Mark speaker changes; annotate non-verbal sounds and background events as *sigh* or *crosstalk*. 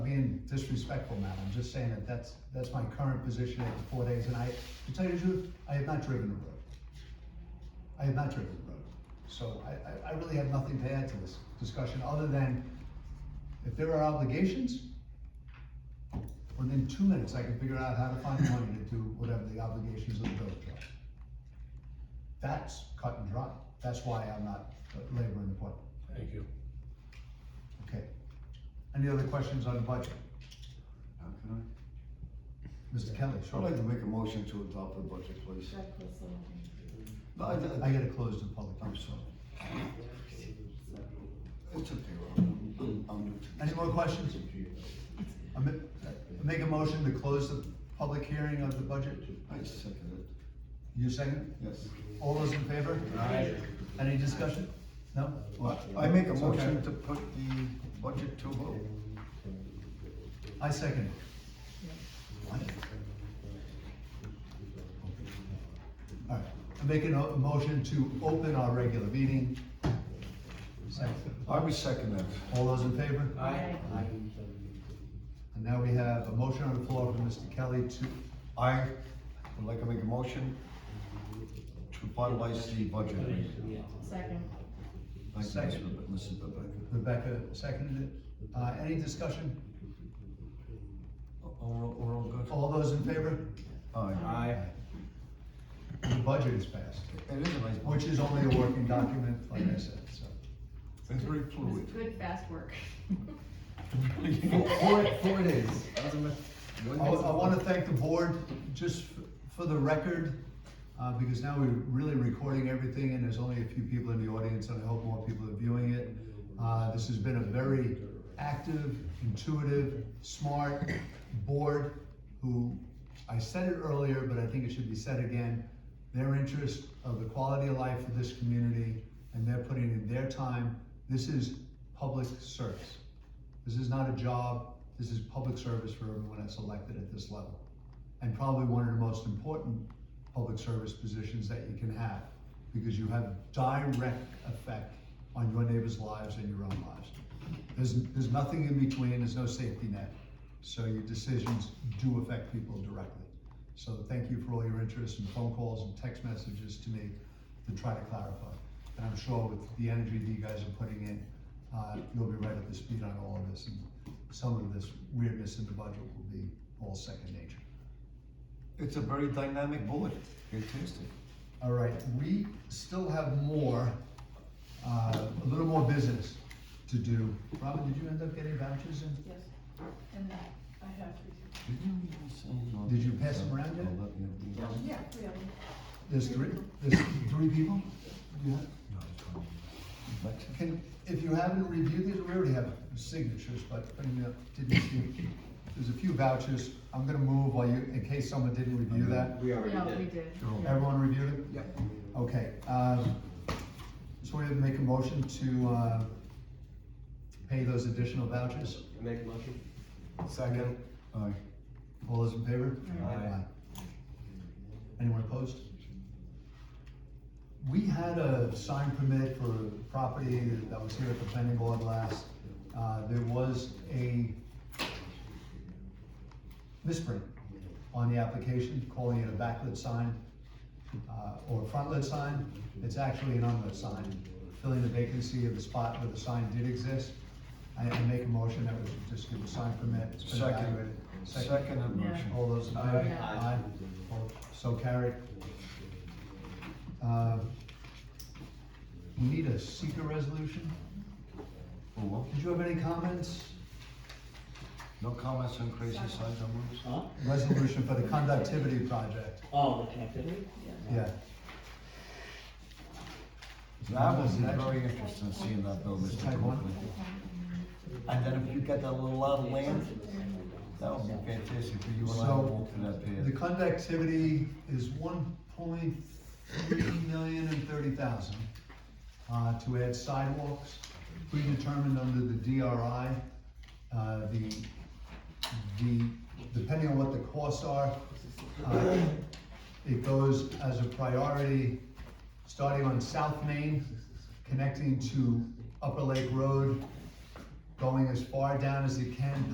Speaker 1: being disrespectful, Matt, I'm just saying that that's, that's my current position after four days, and I, to tell you the truth, I have not driven the road. I have not driven the road, so I, I, I really have nothing to add to this discussion, other than if there are obligations, within two minutes, I can figure out how to find money to do whatever the obligations of the village are. That's cut and dry, that's why I'm not laboring the point.
Speaker 2: Thank you.
Speaker 1: Okay. Any other questions on the budget?
Speaker 3: Uh, Can
Speaker 1: Mr. Kelly,
Speaker 3: I, I'd
Speaker 1: sure.
Speaker 3: like to make a motion to adopt the budget, please. No, I,
Speaker 1: I
Speaker 3: I,
Speaker 1: gotta close the public
Speaker 3: I'm
Speaker 1: hearing.
Speaker 3: sorry. It's okay, Rob, I'm, I'm new to this.
Speaker 1: Any more questions? I ma- I Make a motion to close the public hearing of the budget.
Speaker 3: I second
Speaker 1: You second?
Speaker 3: it, yes.
Speaker 1: All those in favor? Aye. Any discussion? No?
Speaker 3: Well, I make a
Speaker 1: It's
Speaker 3: motion
Speaker 1: okay.
Speaker 3: to put the budget to vote.
Speaker 1: I second. What? All right, I'm making a a motion to open our regular meeting. Second.
Speaker 3: I would second that.
Speaker 1: All those in favor?
Speaker 2: Aye.
Speaker 1: And now we have a motion on the floor from Mr. Kelly to,
Speaker 3: I would like to make a motion to finalize the budget.
Speaker 4: Second.
Speaker 3: Thank you,
Speaker 1: Second.
Speaker 3: Mr. Be- Mrs. Bebeck.
Speaker 1: Rebecca seconded it. Uh, any discussion?
Speaker 3: All, we're all good?
Speaker 1: All those in favor?
Speaker 3: Aye.
Speaker 1: The budget is passed,
Speaker 3: It is a nice
Speaker 1: which
Speaker 3: budget.
Speaker 1: is only a working document, like I said, so.
Speaker 3: It's very
Speaker 4: It was
Speaker 1: *laughs*
Speaker 3: fluid.
Speaker 4: good, fast work.
Speaker 5: Four, four days. That was a myth.
Speaker 1: I, I wanna thank the board, just f- for the record, uh, because now we're really recording everything and there's only a few people in the audience and I hope more people are viewing it. Uh, this has been a very active, intuitive, smart board who, I said it earlier, but I think it should be said again, their interest of the quality of life of this community and they're putting in their time. This is public service. This is not a job, this is public service for everyone that's elected at this level. And probably one of the most important public service positions that you can have, because you have direct effect on your neighbors' lives and your own lives. There's, there's nothing in between, there's no safety net, so your decisions do affect people directly. So thank you for all your interest and phone calls and text messages to me to try to clarify. And I'm sure with the energy that you guys are putting in, uh, you'll be right up to speed on all of this. And some of this weirdness in the budget will be all second nature.
Speaker 3: It's a very dynamic board. Fantastic.
Speaker 1: All right, we still have more, uh, a little more business to do. Robin, did you end up getting vouchers in?
Speaker 4: Yes. And that, I have three.
Speaker 3: Did you even say no?
Speaker 1: Did you pass them around yet?
Speaker 3: I'll let you-
Speaker 4: Yeah, three of them.
Speaker 1: There's three, there's three people? Yeah.
Speaker 3: No, it's fine. Mexican?
Speaker 1: Can, if you haven't reviewed these, we already have signatures, but I mean, uh, didn't see. There's a few vouchers. I'm gonna move while you, in case someone didn't review that.
Speaker 5: We
Speaker 4: No,
Speaker 5: already
Speaker 4: we
Speaker 5: did.
Speaker 4: did.
Speaker 3: Sure.
Speaker 1: Everyone reviewed it?
Speaker 5: Yep.
Speaker 1: Okay, um, so we have to make a motion to, uh, pay those additional vouchers.
Speaker 5: Make a motion?
Speaker 3: Second. Aye.
Speaker 1: All those in favor?
Speaker 5: Aye.
Speaker 1: Aye. Anyone opposed? We had a sign permit for a property that was here at the planning board last. Uh, there was a misprint on the application, calling it a backlit sign, uh, or a frontlit sign. It's actually an unlit sign, filling the vacancy of the spot where the sign did exist. I, I make a motion that we should just give a sign permit. It's been
Speaker 3: Second.
Speaker 1: evaluated.
Speaker 3: Second and
Speaker 4: Yeah.
Speaker 3: motion.
Speaker 1: All those in favor?
Speaker 5: Aye.
Speaker 1: Aye. All- So carried. Uh, We need a seeker resolution.
Speaker 3: Oh, well,
Speaker 1: Did you have any comments?
Speaker 3: No comments on crazy side numbers?
Speaker 6: Huh?
Speaker 1: Resolution for the conductivity project,
Speaker 6: Oh, the connectivity?
Speaker 1: yeah.
Speaker 3: That was very interesting seeing that bill, Mr.
Speaker 1: Type one.
Speaker 3: Copley. And then if you get that little lot of land, that would be fantastic for you and I to
Speaker 1: So,
Speaker 3: walk through that
Speaker 1: The
Speaker 3: pad.
Speaker 1: conductivity is one point three million and thirty thousand, uh, to add sidewalks, predetermined under the DRI. Uh, the, the, depending on what the costs are, uh, it goes as a priority, starting on South Main, connecting to Upper Lake Road, going as far down as you can